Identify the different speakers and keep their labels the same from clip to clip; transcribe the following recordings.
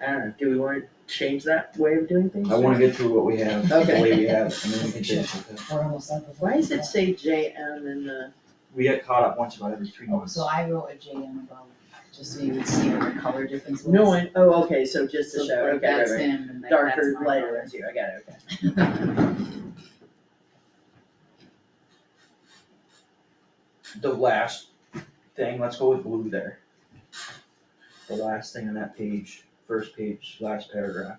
Speaker 1: I don't know, do we wanna change that way of doing things?
Speaker 2: I wanna get through what we have, the
Speaker 1: Okay.
Speaker 2: way we have, and then we can change it.
Speaker 3: We're almost done.
Speaker 1: Why does it say J M in the,
Speaker 2: We get caught up once about every three months.
Speaker 3: So I wrote a JM above, just so you would see what the color difference was.
Speaker 1: no one, oh, okay, so just to
Speaker 3: So
Speaker 1: show,
Speaker 3: like
Speaker 1: okay, right,
Speaker 3: that's
Speaker 1: right.
Speaker 3: him and like that's
Speaker 1: darker,
Speaker 3: my
Speaker 1: lighter
Speaker 3: color.
Speaker 1: ones here, I got it, okay.
Speaker 2: The last thing, let's go with blue there. The last thing on that page, first page, last paragraph.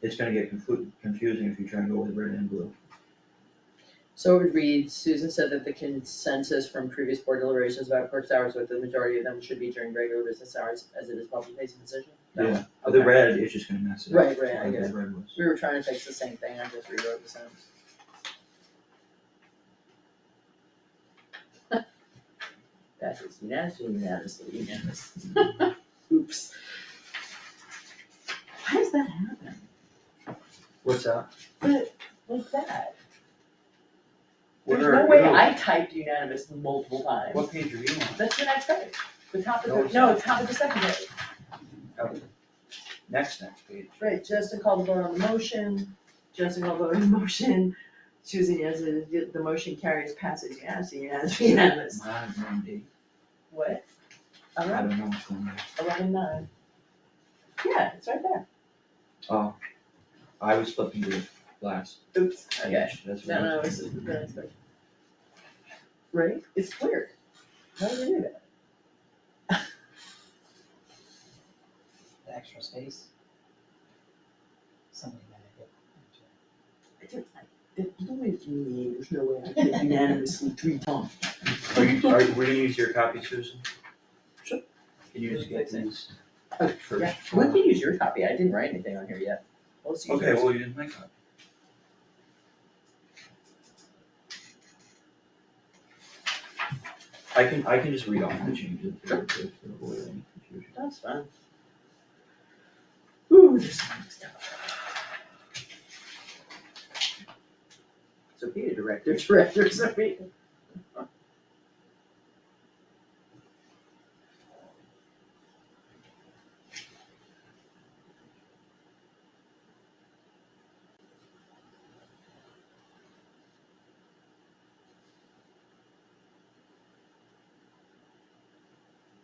Speaker 2: It's gonna get confu- confusing if you try and go with red and blue.
Speaker 1: So it would read, Susan said that the consensus from previous board deliberations about clerk's hours, with the majority of them should be during regular business hours, as it is public facing position? No.
Speaker 2: Yeah. But The
Speaker 1: Okay.
Speaker 2: red is just gonna mess it up.
Speaker 1: Right, right, I
Speaker 2: like
Speaker 1: get
Speaker 2: the
Speaker 1: it.
Speaker 2: red was.
Speaker 1: We were trying to fix the same thing, I just rewrote the sentence. That is nasty, nasty, unanimous. Oops. Why does that happen?
Speaker 2: What's up?
Speaker 1: But, like that,
Speaker 2: What
Speaker 1: there's
Speaker 2: are-
Speaker 1: no way I typed unanimous multiple times.
Speaker 2: What page are you on?
Speaker 1: That's the next page, the top
Speaker 2: No,
Speaker 1: of
Speaker 2: it's
Speaker 1: the, no,
Speaker 2: not.
Speaker 1: top of the second page.
Speaker 2: Next, next page.
Speaker 1: Right, Justin called the vote on the motion, Justin called the vote on the motion, Susan yes, and the the motion carries passes unanimously, unanimously, unanimous.
Speaker 2: Mine is on D.
Speaker 1: What?
Speaker 2: I
Speaker 1: Eleven,
Speaker 2: don't know what's going on.
Speaker 1: eleven nine. Yeah, it's right there.
Speaker 2: Oh, I was flipping to the last
Speaker 1: Oops, okay.
Speaker 2: page, that's what.
Speaker 1: No,
Speaker 2: I
Speaker 1: no,
Speaker 2: was
Speaker 1: it's,
Speaker 2: doing.
Speaker 1: it's, right, it's clear. How did you do that?
Speaker 3: The extra space. Something that I
Speaker 1: I did, I, that blew it from me, there's no way I did unanimously three times.
Speaker 2: Are you, are, you- we're gonna use your copy, Susan?
Speaker 1: Sure.
Speaker 2: Can you just get these?
Speaker 1: Okay, Oh,
Speaker 2: first
Speaker 1: yeah, we
Speaker 2: one?
Speaker 1: can use your copy, I didn't write anything on here yet. Let's use
Speaker 2: Okay,
Speaker 1: yours.
Speaker 2: well, you didn't make copy. I can, I can just read off the changes. if- if to avoid any confusion.
Speaker 1: That's fine. Ooh, there's some stuff. So be a director, director, so be.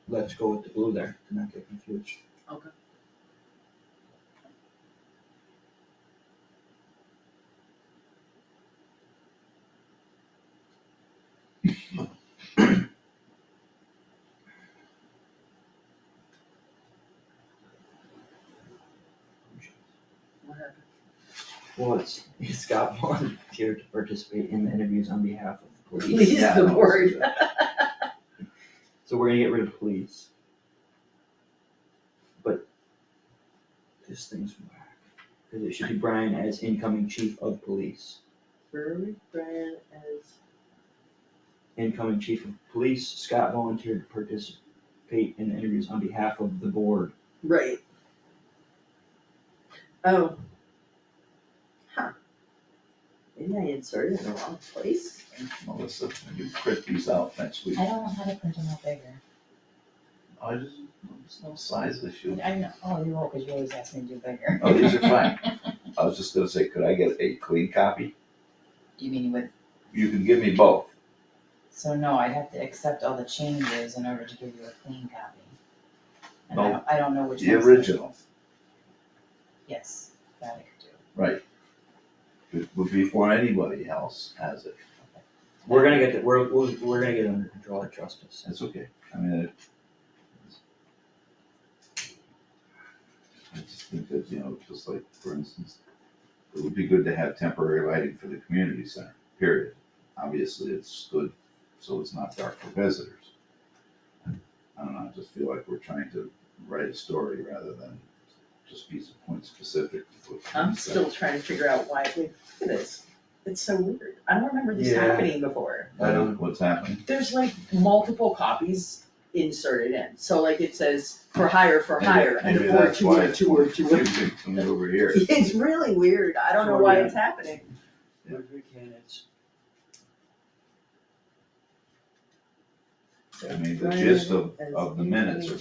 Speaker 2: Let's go with the blue there, to not get confused. Well, it's, it's got volunteered to participate in the interviews on behalf of the police.
Speaker 1: Please,
Speaker 2: Yeah,
Speaker 1: the
Speaker 2: no,
Speaker 1: board.
Speaker 2: So we're gonna get rid of police. But this thing's whack, cause it should be Brian as incoming chief of police.
Speaker 1: Brewery Brian as,
Speaker 2: Incoming chief of police, Scott volunteered to participate in the interviews on behalf of the board.
Speaker 1: right. Oh. Huh. Maybe I inserted it in the wrong place?
Speaker 4: Melissa, when you print these out next week,
Speaker 3: I don't know how to print them out bigger.
Speaker 4: I just, there's no size issue.
Speaker 3: I know, oh, you won't, because you always ask me to do bigger.
Speaker 4: Oh, these are fine. I was just gonna say, could I get a clean copy?
Speaker 3: You mean with,
Speaker 4: You can give me both.
Speaker 3: so no, I'd have to accept all the changes in order to give you a clean copy. And I
Speaker 4: No.
Speaker 3: don't, I don't know which ones.
Speaker 4: Oh, The original,
Speaker 3: Yes, that I could do.
Speaker 4: it would be before anybody else has it.
Speaker 2: We're gonna get, the- we're, we're, we're gonna get it under control, I trust us.
Speaker 4: That's okay. I mean, it. I just think that, you know, just like, for instance, it would be good to have temporary lighting for the community center, period. Obviously, it's good, so it's not dark for visitors. I don't know, I just feel like we're trying to write a story rather than just be point specific. to what
Speaker 1: I'm
Speaker 4: we said.
Speaker 1: still trying to figure out why, we look at this, it's so weird, I don't remember this
Speaker 2: Yeah.
Speaker 1: happening before.
Speaker 4: I don't
Speaker 1: um,
Speaker 4: know what's happening.
Speaker 1: there's like multiple copies inserted in, so like it says for hire, for hire, and
Speaker 4: Maybe
Speaker 1: the board
Speaker 4: that's
Speaker 1: two
Speaker 4: why
Speaker 1: or
Speaker 4: it's
Speaker 1: two or two. or-
Speaker 4: confusing to me over here.
Speaker 1: It's really weird, I don't know
Speaker 2: So,
Speaker 1: why
Speaker 2: yeah.
Speaker 1: it's happening.
Speaker 4: Yeah.
Speaker 2: Where's your candidates?
Speaker 4: I mean, the gist of, of the minutes are